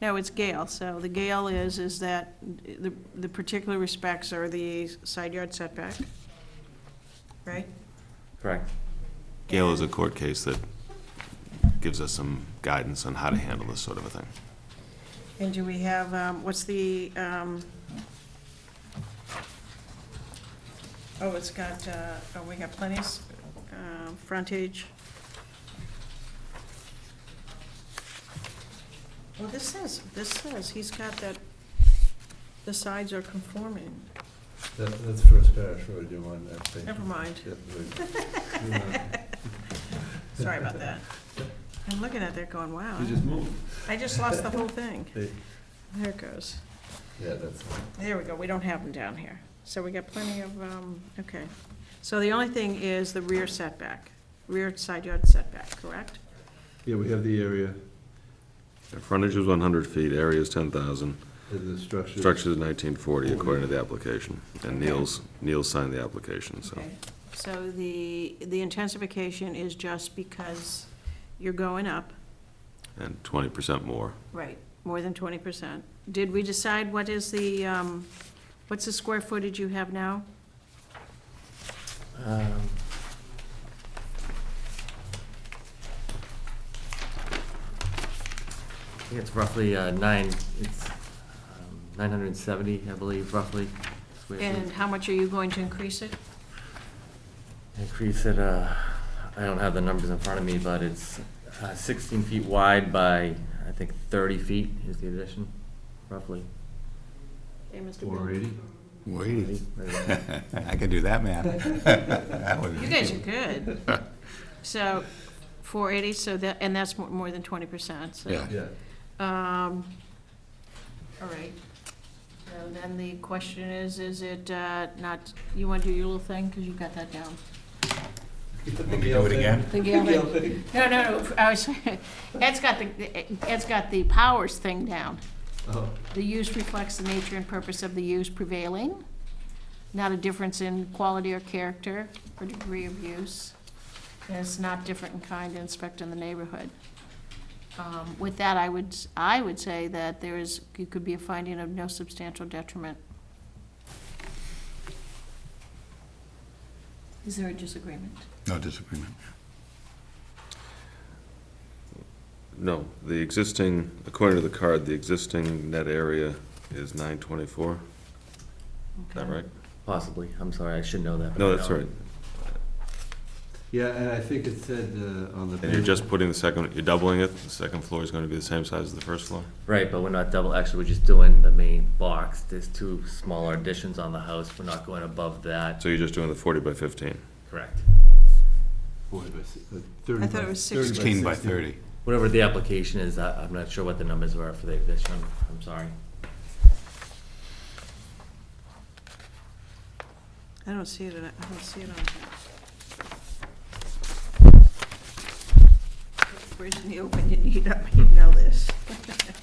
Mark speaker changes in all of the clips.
Speaker 1: No, it's Gale, so the Gale is, is that the, the particular respects are the side yard setback, right?
Speaker 2: Correct.
Speaker 3: Gail is a court case that gives us some guidance on how to handle this sort of a thing.
Speaker 1: And do we have, um, what's the, um, oh, it's got, uh, oh, we got plenty, s- um, frontage. Well, this says, this says, he's got that, the sides are conforming.
Speaker 4: That, that's First Parish Road you want, I think.
Speaker 1: Never mind.
Speaker 4: Yeah, we- we want-
Speaker 1: Sorry about that. I'm looking at that going, wow,
Speaker 4: You just moved.
Speaker 1: I just lost the whole thing.
Speaker 4: They-
Speaker 1: There it goes.
Speaker 4: Yeah, that's,
Speaker 1: There we go, we don't have them down here. So we got plenty of, um, okay. So the only thing is the rear setback, rear side yard setback, correct?
Speaker 4: yeah, we have the area,
Speaker 3: The Frontage is 100 feet, area is 10,000,
Speaker 4: and the structure.
Speaker 3: structure is 1940 according to the application. And Neil's, Neil signed the application, so.
Speaker 1: Okay. So the, the intensification is just because you're going up,
Speaker 3: And 20% more.
Speaker 1: right, more than twenty percent. Did we decide what is the, um, what's the square footage you have now?
Speaker 5: Um, I think it's roughly uh, nine, it's nine hundred and seventy, I believe, roughly. square feet.
Speaker 1: And how much are you going to increase it?
Speaker 5: Increase it, uh, I don't have the numbers in front of me, but it's uh, sixteen feet wide by, I think, thirty feet is the addition, roughly.
Speaker 1: Hey, Mr. Bill.
Speaker 4: Four eighty?
Speaker 6: Wait,
Speaker 5: Maybe.
Speaker 6: I can do that math. That would be-
Speaker 1: You guys are good. So, four eighty, so that, and that's mo- more than twenty percent, so.
Speaker 6: Yeah.
Speaker 4: Yeah,
Speaker 1: Um, all right. So then the question is, is it, uh, not, you wanna do your little thing, cause you've got that down?
Speaker 6: Want me to do it again?
Speaker 1: The No, no, no, I was, Ed's got the, Ed's got the powers thing down.
Speaker 4: Oh,
Speaker 1: The use reflects the nature and purpose of the use prevailing, not a difference in quality or character or degree of use. And it's not different in kind and inspect in the neighborhood. Um, With that, I would, s- I would say that there is, it could be a finding of no substantial detriment. Is there a disagreement?
Speaker 6: No disagreement.
Speaker 3: No, the existing, according to the card, the existing net area is 924, is that right?
Speaker 5: Possibly, I'm sorry, I should know that. but
Speaker 3: No,
Speaker 5: I
Speaker 3: that's
Speaker 5: don't.
Speaker 3: right.
Speaker 4: yeah, and I think it said, uh, on the.
Speaker 3: And you're just putting the second, you're doubling it, the second floor is going to be the same size as the first floor?
Speaker 5: Right, but we're not double, actually, we're just doing the main box. There's two smaller additions on the house. We're not going above that.
Speaker 3: So you're just doing the 40 by 15?
Speaker 5: Correct.
Speaker 4: Forty by si- uh, thirty
Speaker 1: I thought it
Speaker 4: by-
Speaker 1: was
Speaker 4: thirty
Speaker 6: 16 by 30.
Speaker 5: Whatever the application is, I, I'm not sure what the numbers were for the addition. I'm sorry.
Speaker 1: I don't see it, in- I don't see it on here. Where's Neil when you need him? You know this.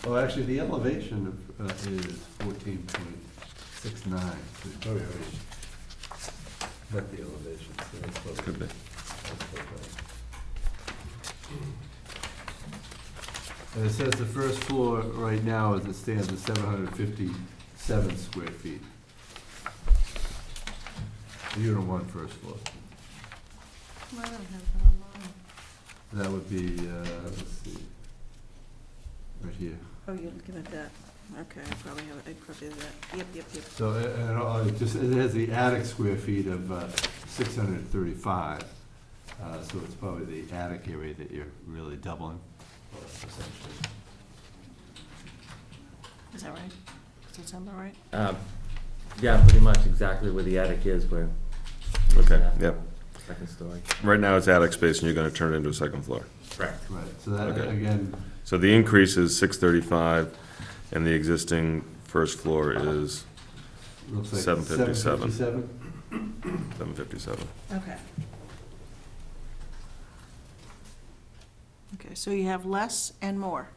Speaker 4: Oh, actually, the elevation of, uh, is fourteen point six nine, so it's probably already, Oh, not the elevation, so that's close.
Speaker 3: Could be.
Speaker 4: And it says the first floor right now, as it stands, is seven hundred fifty-seven square feet. Unit one, first floor.
Speaker 1: Well, I don't have it online.
Speaker 4: That would be, uh, let's see, right here.
Speaker 1: Oh, you're looking at that. Okay, I probably have, it. I probably have that. Yep, yep, yep.
Speaker 4: So, uh, and, all- it just, it has the attic square feet of, uh, six hundred and thirty-five, uh, so it's probably the attic area that you're really doubling, uh, essentially.
Speaker 1: Is that right? Does that sound about right?
Speaker 5: Um, yeah, pretty much exactly where the attic is, where.
Speaker 3: Okay,
Speaker 5: Yeah.
Speaker 3: yep.
Speaker 5: Second story.
Speaker 3: Right now, it's attic space, and you're gonna turn it into a second floor.
Speaker 5: Correct.
Speaker 4: Right, so that,
Speaker 3: Okay.
Speaker 4: again,
Speaker 3: So the increase is six thirty-five, and the existing first floor is
Speaker 4: looks like.
Speaker 3: 757.
Speaker 4: 757?
Speaker 3: seven fifty-seven.
Speaker 1: Okay. Okay, so you have less and more.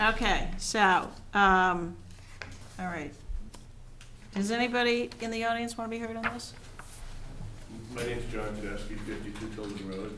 Speaker 1: Okay, so, um, all right. Does anybody in the audience want to be heard on this?
Speaker 2: My name's John Tedeschi, 52 Tilden Road.